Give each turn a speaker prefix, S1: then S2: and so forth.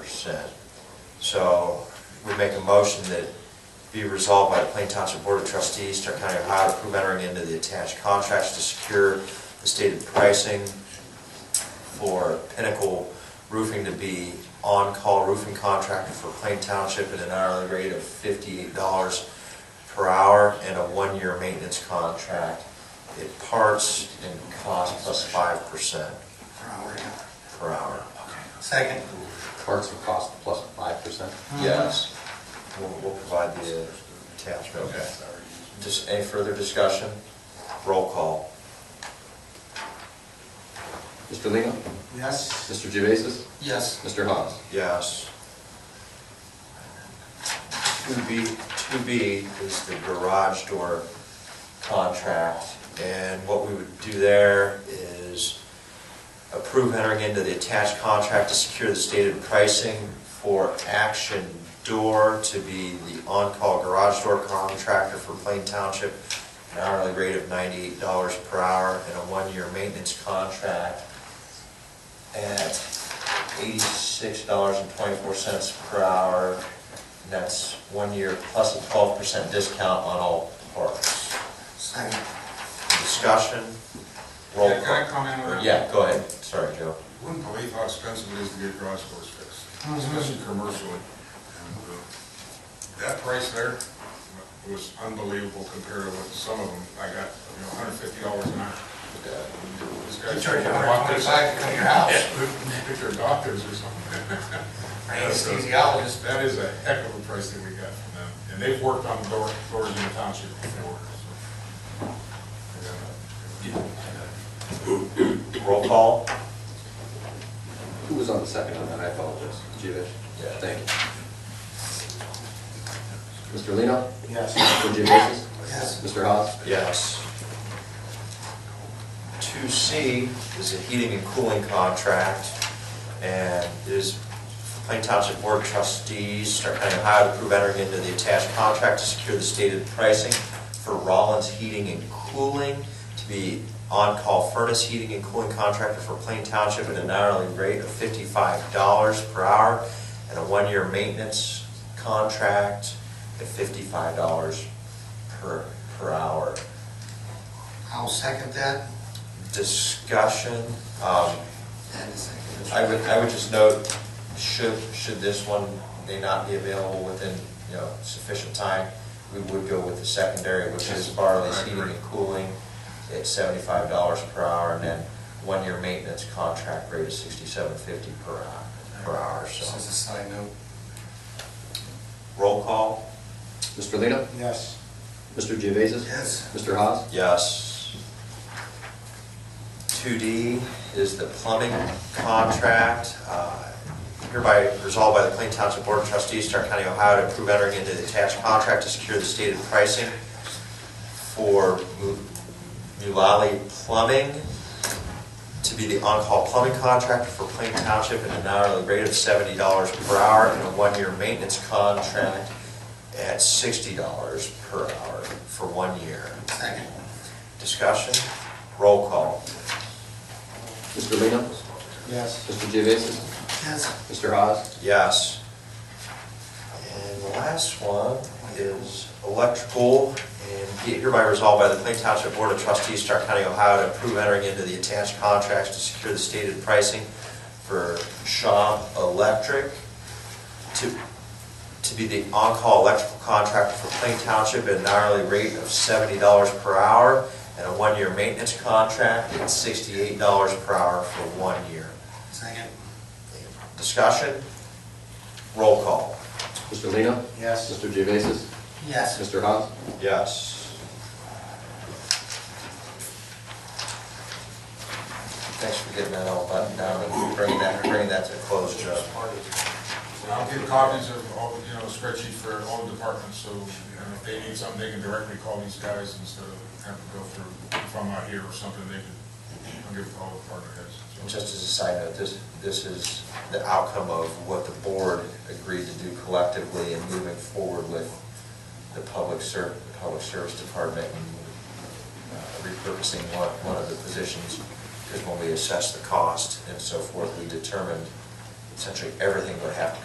S1: percent. So we make a motion that be resolved by the Plain Township Board of Trustees, Stark County, Ohio, to approve entering into the attached contracts to secure the stated pricing for Pinnacle Roofing to be on-call roofing contractor for Plain Township at an hourly rate of fifty-eight dollars per hour and a one-year maintenance contract. It parts and cost plus five percent
S2: Per hour, yeah.
S1: per hour.
S2: Second.
S3: Parts and cost plus five percent?
S1: Yes. We'll, we'll provide the uh, attachment. Okay. Just any further discussion? Roll call.
S3: Mr. Lino?
S2: Yes.
S3: Mr. Gevasis?
S2: Yes.
S3: Mr. Hawes?
S1: Yes. To B, to B is the garage door contract, and what we would do there is approve entering into the attached contract to secure the stated pricing for Action Door to be the on-call garage door contractor for Plain Township, an hourly rate of ninety-eight dollars per hour, and a one-year maintenance contract at eighty-six dollars and twenty-four cents per hour. And that's one year plus a twelve percent discount on all parts.
S2: Second.
S1: Discussion, roll
S4: Yeah, Can I
S1: call.
S4: comment on that?
S1: Yeah, go ahead, sorry, Joe.
S4: Wouldn't believe how expensive it is to get garage doors fixed,
S2: Oh,
S4: especially commercially. And, uh, That price there was unbelievable compared to what some of them, I got, you know, hundred fifty dollars an hour. This
S2: You
S4: guy's
S2: charge
S4: charging
S2: a hundred
S4: doctors,
S2: twenty-five to come to your house.
S4: if they're doctors or something.
S2: Or anesthesiologist.
S4: That is a heck of a price that we got from them, and they've worked on door, doors in the township before, so.
S1: Roll call?
S3: Who was on the second on that? I apologize. Gevasis?
S1: Yeah.
S3: Thank you. Mr. Lino?
S2: Yes.
S3: Mr. Gevasis?
S2: Yes.
S3: Mr. Hawes?
S1: Yes. Two C is a heating and cooling contract, and it is Plain Township Board of Trustees, Stark County, Ohio, to approve entering into the attached contract to secure the stated pricing for Rollins Heating and Cooling to be on-call furnace heating and cooling contractor for Plain Township at an hourly rate of fifty-five dollars per hour and a one-year maintenance contract at fifty-five dollars per, per hour.
S2: I'll second that.
S1: Discussion, um,
S2: And a second.
S1: I would, I would just note, should, should this one, they not be available within, you know, sufficient time, we would go with the secondary, which is Barley's
S4: I
S1: Heating
S4: agree.
S1: and Cooling at seventy-five dollars per hour, and then one-year maintenance contract rate is sixty-seven fifty per hour, per hour,
S2: Just as a
S1: so.
S2: side note.
S1: Roll call?
S3: Mr. Lino?
S2: Yes.
S3: Mr. Gevasis?
S2: Yes.
S3: Mr. Hawes?
S1: Yes. 2D is the plumbing contract. Uh, Hereby resolved by the Plain Township Board of Trustees, Stark County, Ohio, to approve entering into the attached contract to secure the stated pricing for Mu- Mulally Plumbing to be the on-call plumbing contractor for Plain Township at an hourly rate of seventy dollars per hour and a one-year maintenance contract at sixty dollars per hour for one year.
S2: Second.
S1: Discussion, roll call.
S3: Mr. Lino?
S2: Yes.
S3: Mr. Gevasis?
S2: Yes.
S3: Mr. Hawes?
S1: Yes. And the last one is electrical, and be it hereby resolved by the Plain Township Board of Trustees, Stark County, Ohio, to approve entering into the attached contracts to secure the stated pricing for Shaw Electric to, to be the on-call electrical contractor for Plain Township at an hourly rate of seventy dollars per hour and a one-year maintenance contract at sixty-eight dollars per hour for one year.
S2: Second.
S1: Discussion? Roll call.
S3: Mr. Lino?
S2: Yes.
S3: Mr. Gevasis?
S2: Yes.
S3: Mr. Hawes?
S1: Yes. Thanks for getting that all buttoned down and bringing that, bringing that to a close, Joe.
S4: And I'll get copies of all, you know, spreadsheet for all the departments, so, you know, if they need something, they can directly call these guys instead of having to go through, if I'm out here or something, they can, I'll give it to all the department heads.
S1: And
S4: so.
S1: Just as a side note, this, this is the outcome of what the board agreed to do collectively and moving forward with the public ser, the public service department and uh, repurposing one, one of the positions. Because when we assessed the cost and so forth, we determined essentially everything would have to